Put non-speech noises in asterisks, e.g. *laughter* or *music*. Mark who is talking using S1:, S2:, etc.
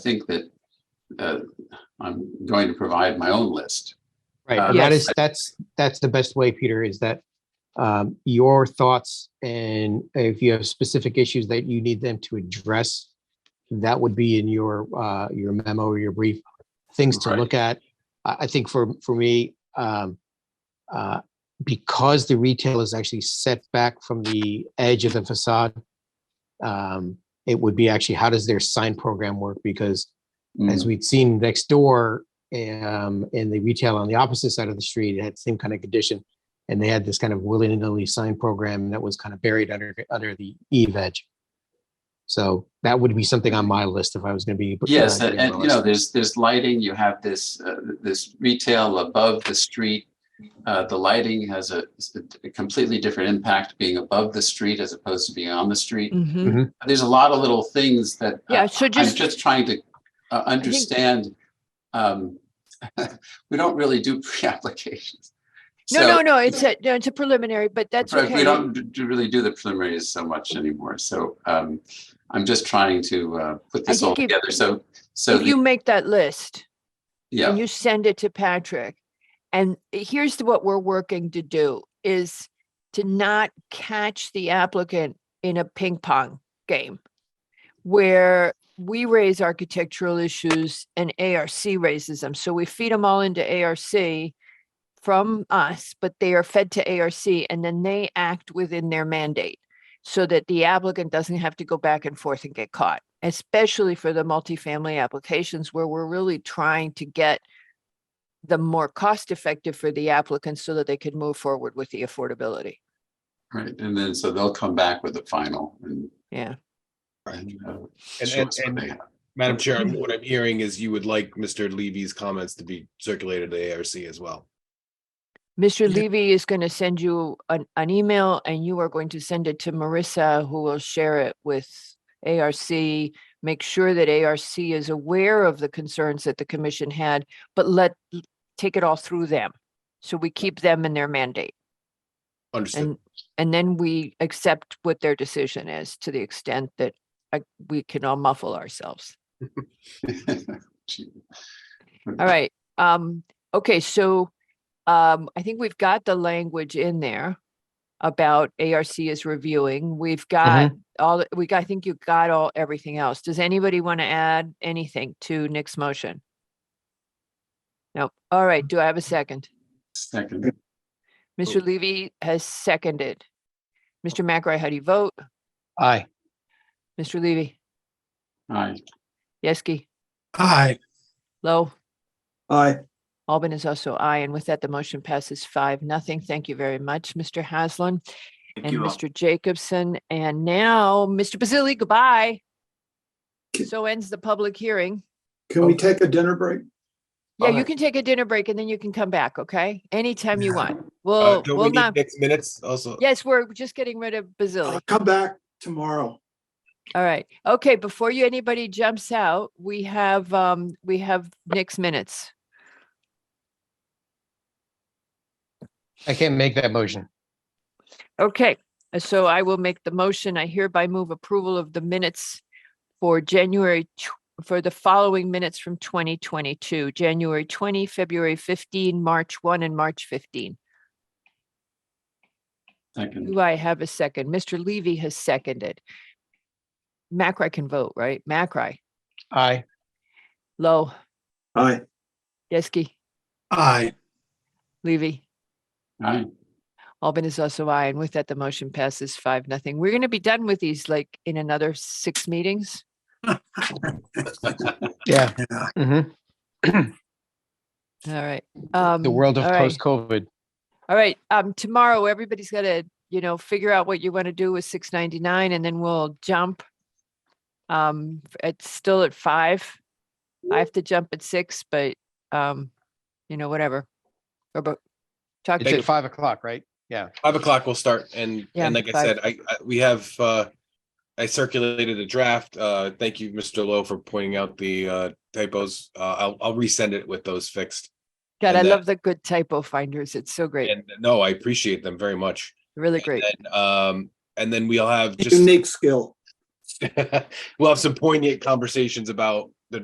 S1: think that uh, I'm going to provide my own list. Uh,
S2: Right, that
S1: yes.
S2: is, that's, that's the best way, Peter, is that um, your thoughts and if you have specific issues that you need them to address, that would be in your, uh, your memo or your brief, things to
S1: Right.
S2: look at. I, I think for, for me, um, uh, because the retail is actually set back from the edge of the facade, um, it would be actually, how does their sign program work? Because
S3: Mm.
S1: Mm-hmm.
S2: as we'd seen next door, um, in the retail on the opposite side of the street, it had the same kind of condition. And they had this kind of willy-nilly sign program that was kind of buried under, under the eve edge. So that would be something on my list if I was gonna be. uh,
S1: Yes, and
S2: doing
S1: and,
S2: my
S1: you know,
S2: list.
S1: there's, there's lighting, you have this, uh, this retail above the street. Uh, The lighting has a a completely different impact being above the street as opposed to being on the street.
S3: Mhm.
S1: There's a lot of little things that. uh,
S3: Yeah, so
S1: I'm
S3: just,
S1: just trying to uh, understand. um, *laughs* We don't really do *laughs* pre-applications.
S3: no,
S1: So-
S3: no, no, it's a, no, it's a preliminary, but that's
S1: Right,
S3: okay.
S1: We don't d- d- really do the preliminaries so much anymore, so um, I'm just trying to uh, put this all
S3: think if-
S1: together, so, so,
S3: If
S1: the-
S3: you make that list
S1: yeah,
S3: and you send it to Patrick, and here's the- what we're working to do is to not catch the applicant in a ping pong game where we raise architectural issues and ARC raises them. So we feed them all into ARC from us, but they are fed to ARC and then they act within their mandate so that the applicant doesn't have to go back and forth and get caught, especially for the multifamily applications where we're really trying to get the more cost effective for the applicant so that they can move forward with the affordability.
S1: right, and then, so they'll come back with the final and.
S3: Yeah.
S1: and, uh,
S4: And-
S1: show
S4: and-
S1: us what
S4: and-
S1: they have.
S4: Madam Chair, I'm- what I'm hearing is you would like Mr. Levy's comments to be circulated to ARC as well.
S3: Mr. Levy is going to send you an, an email and you are going to send it to Marissa, who will share it with ARC. Make sure that ARC is aware of the concerns that the commission had, but let, take it all through them. So we keep them in their mandate
S4: Understood.
S3: and, and then we accept what their decision is to the extent that uh, we can all muffle ourselves.
S1: *laughs* Gee.
S3: All right, um, okay, so, um, I think we've got the language in there about ARC is reviewing. We've got all, we got, I think you got all, everything else. Does anybody want to add anything to Nick's motion? Nope. All right, do I have a second?
S1: Second,
S3: Mr. Levy has seconded. Mr. McRae, how do you vote?
S2: Aye,
S3: Mr. Levy,
S1: aye,
S3: Yeski,
S4: Hi.
S3: Lowe?
S5: Aye,
S3: Albin is also aye, and with that, the motion passes five, nothing. Thank you very much, Mr. Haslam and Mr. Jacobson. And now, Mr. Basili, goodbye.
S5: K-
S3: So ends the public hearing.
S5: can we take a dinner break?
S3: Yeah, you
S5: Alright.
S3: can take a dinner break and then you can come back, okay? Anytime you want. Well,
S4: Uh, Don't we
S3: well,
S4: need
S3: not,
S4: next minutes also?
S3: yes, we're just getting rid of Basili.
S5: I'll come back tomorrow.
S3: All right. Okay, before you, anybody jumps out, we have, um, we have Nick's minutes.
S2: I can't make that motion.
S3: Okay, uh, so I will make the motion. I hereby move approval of the minutes for January, tw- for the following minutes from 2022, January 20, February 15, March 1, and March 15.
S1: second,
S3: Do I have a second? Mr. Levy has seconded. Macri can vote, right? Macri,
S2: Aye,
S3: Low,
S5: Aye,
S3: Yeski,
S4: Aye.
S3: Levy.
S1: aye,
S3: Albin is also aye, and with that, the motion passes five, nothing. We're going to be done with these like in another six meetings.
S2: yeah.
S5: Yeah.
S2: Mhm.
S3: All right. um,
S2: The world of
S3: post.
S2: post-COVID.
S3: All right, um, tomorrow, everybody's gotta, you know, figure out what you want to do with six ninety-nine and then we'll jump. Um, f- it's still at five. I have to jump at six, but, um, you know, whatever. Or, but, talk
S2: It's
S3: to
S2: at
S3: you.
S2: five o'clock, right?
S4: Five o'clock will start and,
S3: Yeah,
S4: and like I
S3: five.
S4: said, I, I- we have, uh, I circulated a draft. Uh, thank you, Mr. Lowe, for pointing out the, uh, typos. Uh, I'll, I'll resend it with those fixed.
S3: God,
S4: and
S3: I
S4: that-
S3: love the good typo finders. It's so great,
S4: And no, I appreciate them very much.
S3: really great.
S4: And, um, and then we'll have just. *laughs*
S5: unique skill.
S4: we'll have some poignant conversations about